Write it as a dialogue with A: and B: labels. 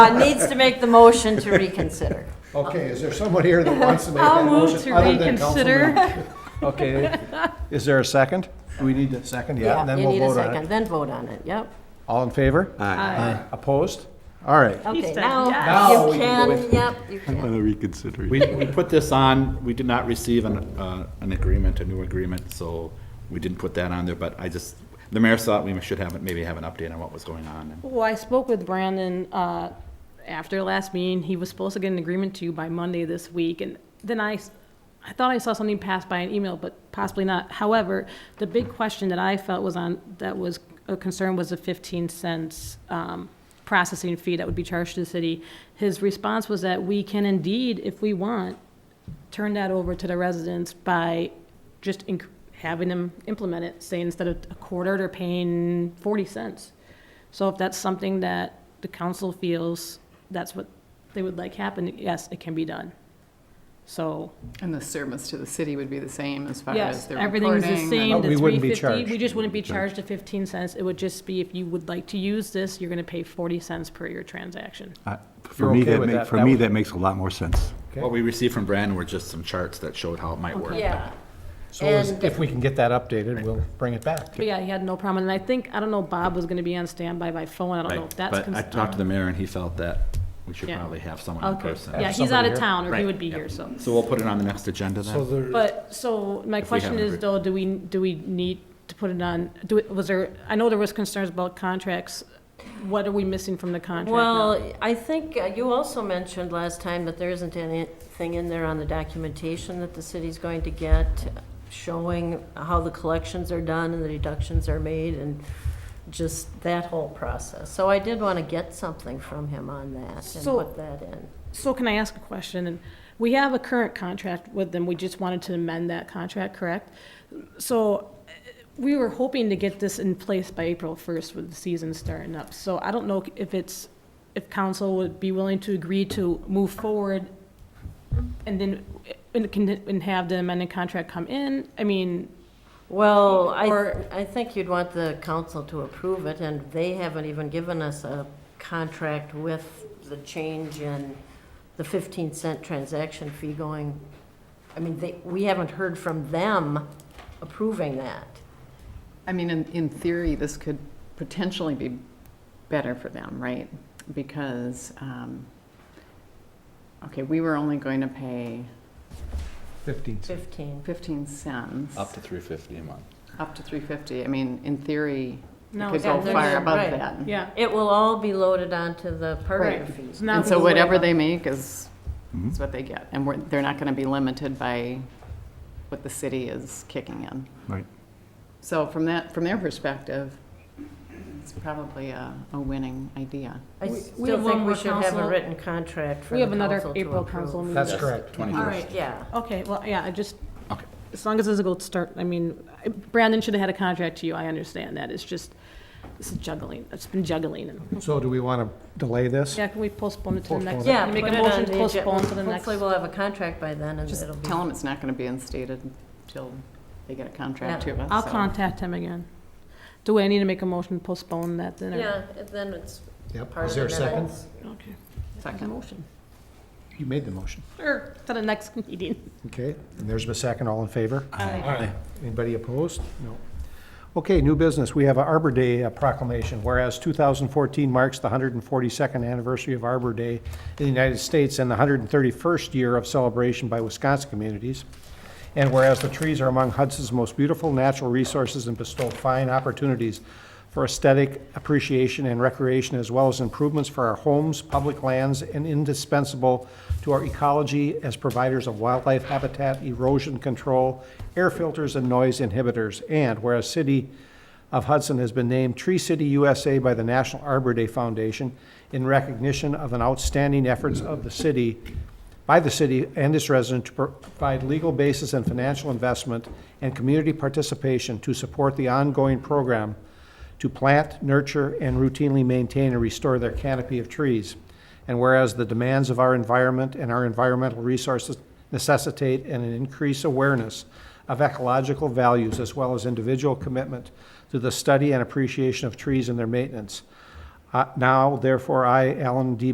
A: Uh, Needs to make the motion to reconsider.
B: Okay, is there someone here that wants to make
C: I'll
B: that
C: move
B: motion?
C: to
B: other than
C: reconsider.
B: Councilman- Okay, is there a second? Do we need a second? Yeah, and then
A: you
B: we'll
A: need a
B: vote on
A: second.
B: it.
A: Then vote on it, yep.
B: All in favor?
C: Aye.
B: Opposed? All right.
A: Okay,
C: said
A: now
C: yes.
A: you
B: Now we can go
A: can,
B: with-
A: yep, you can.
D: want to reconsider.
E: We, we put this on, we did not receive an, uh, an agreement, a new agreement, so we didn't put that on there, but I just, the mayor thought we should have, maybe have an update on what was going on. and-
C: Well, I spoke with Brandon uh, after last meeting. He was supposed to get an agreement to you by Monday this week, and then I, s- I thought I saw something pass by an email, but possibly not. However, the big question that I felt was on, that was a concern was the 15 cents um, processing fee that would be charged to the city. His response was that we can indeed, if we want, turn that over to the residents by just inc- having them implement it, say instead of a quarter, they're paying 40 cents. So if that's something that the council feels that's what they would like happen, yes, it can be done. So,
F: And the service to the city would be the same as far as
C: yes,
F: the
C: everything's the
F: reporting and-
C: same,
B: But
C: the
B: we wouldn't be
C: 350, we
B: charged.
C: just wouldn't be charged the 15 cents. It would just be if you would like to use this, you're going to pay 40 cents per your transaction.
B: You're
D: For me,
B: okay
D: that
B: with
D: makes,
B: that?
D: for
B: That
D: me,
B: was-
D: that makes a lot more sense.
B: Okay.
E: What we received from Brandon were just some charts that showed how it might work.
A: Yeah,
B: So is-
A: And-
B: if we can get that updated, we'll bring it back.
C: But yeah, he had no problem, and I think, I don't know, Bob was going to be on standby by phone, I don't know if
E: Right,
C: that's.
E: But
C: cons-
E: I talked to the mayor and he felt that we should
C: Yeah.
E: probably have someone in
C: Okay,
E: person.
C: yeah, he's out
B: somebody
C: of
B: here.
C: town, or he
E: Right,
C: would be
E: yeah.
C: here, so.
E: So we'll put it on the next agenda then?
C: But, so, my
E: If we
C: question
E: haven't
C: is,
E: agreed.
C: though, do we, do we need to put it on, do, it- was there, I know there was concerns about contracts, what are we missing from the contract now?
A: Well, I think uh, you also mentioned last time that there isn't anything in there on the documentation that the city's going to get showing how the collections are done and the deductions are made and just that whole process. So I did want to get something from him on that and
C: So-
A: put that in.
C: So can I ask a question? And we have a current contract with them, we just wanted to amend that contract, correct? So, eh, we were hoping to get this in place by April first with the season starting up, so I don't know if it's, if council would be willing to agree to move forward and then, eh, and can, and have the amended contract come in, I mean,
A: Well, I,
C: Or-
A: I think you'd want the council to approve it, and they haven't even given us a contract with the change in the 15 cent transaction fee going, I mean, they, we haven't heard from them approving that.
F: I mean, in, in theory, this could potentially be better for them, right? Because, um, okay, we were only going to pay
B: 15 cents.
A: 15.
F: 15 cents.
E: Up to three fifty a month.
F: Up to 350. I mean, in theory, it
C: No,
F: could
C: yeah,
F: go
C: there's-
F: far above
A: right.
F: that.
C: yeah.
A: It will all be loaded onto the permit
F: Right.
A: fees.
C: So now
F: And
C: we
F: so
C: can wait
F: whatever
C: about-
F: they make is, is what they get. And we're, they're not going to be limited by what the city is kicking in.
D: Right.
F: So from that, from their perspective, it's probably a, a winning idea.
A: I
C: We- we
A: still
C: have one
A: think we
C: more
A: should have a
C: council-
A: written contract for
C: We
A: the
C: have another
A: council to
C: April council
A: approve.
C: meeting.
B: That's correct.
A: All
E: Twenty-first.
A: right, yeah.
C: Okay, well, yeah, I just,
E: Okay.
C: as long as it's a good start, I mean, Brandon should have had a contract to you, I understand that, it's just, this is juggling, it's been juggling. and-
B: So do we want to delay this?
C: Yeah, can we postpone it to the next?
A: Yeah.
C: Make a
A: put it on
C: motion
A: the
C: to
A: agen-
C: postpone to the next.
A: Hopefully, we'll have a contract by then, and
F: Just
A: it'll be.
F: tell them it's not going to be instated until they get a contract
A: Yeah.
F: to us.
C: I'll
F: so-
C: contact him again. Do I need to make a motion to postpone that then? or-
A: Yeah, and then it's
B: Yep.
A: part
B: Is
A: of
B: there
A: the
B: a second?
A: minutes.
C: Okay.
F: Second.
C: Motion.
B: You made the motion.
C: Sure, to the next meeting.
B: Okay, and there's been a second. All in favor?
C: Aye.
B: Anybody opposed? No. Okay, new business. We have a Arbor Day uh, proclamation. Whereas 2014 marks the 142nd anniversary of Arbor Day in the United States and the 131st year of celebration by Wisconsin communities. And whereas the trees are among Hudson's most beautiful natural resources and bestow fine opportunities for aesthetic appreciation and recreation, as well as improvements for our homes, public lands, and indispensable to our ecology as providers of wildlife habitat, erosion control, air filters, and noise inhibitors. And whereas City of Hudson has been named Tree City USA by the National Arbor Day Foundation in recognition of an outstanding efforts of the city by the city and its residents to provide legal basis and financial investment and community participation to support the ongoing program to plant, nurture, and routinely maintain and restore their canopy of trees. And whereas the demands of our environment and our environmental resources necessitate an increased awareness of ecological values as well as individual commitment to the study and appreciation of trees and their maintenance. Uh, Now, therefore, I, Alan D.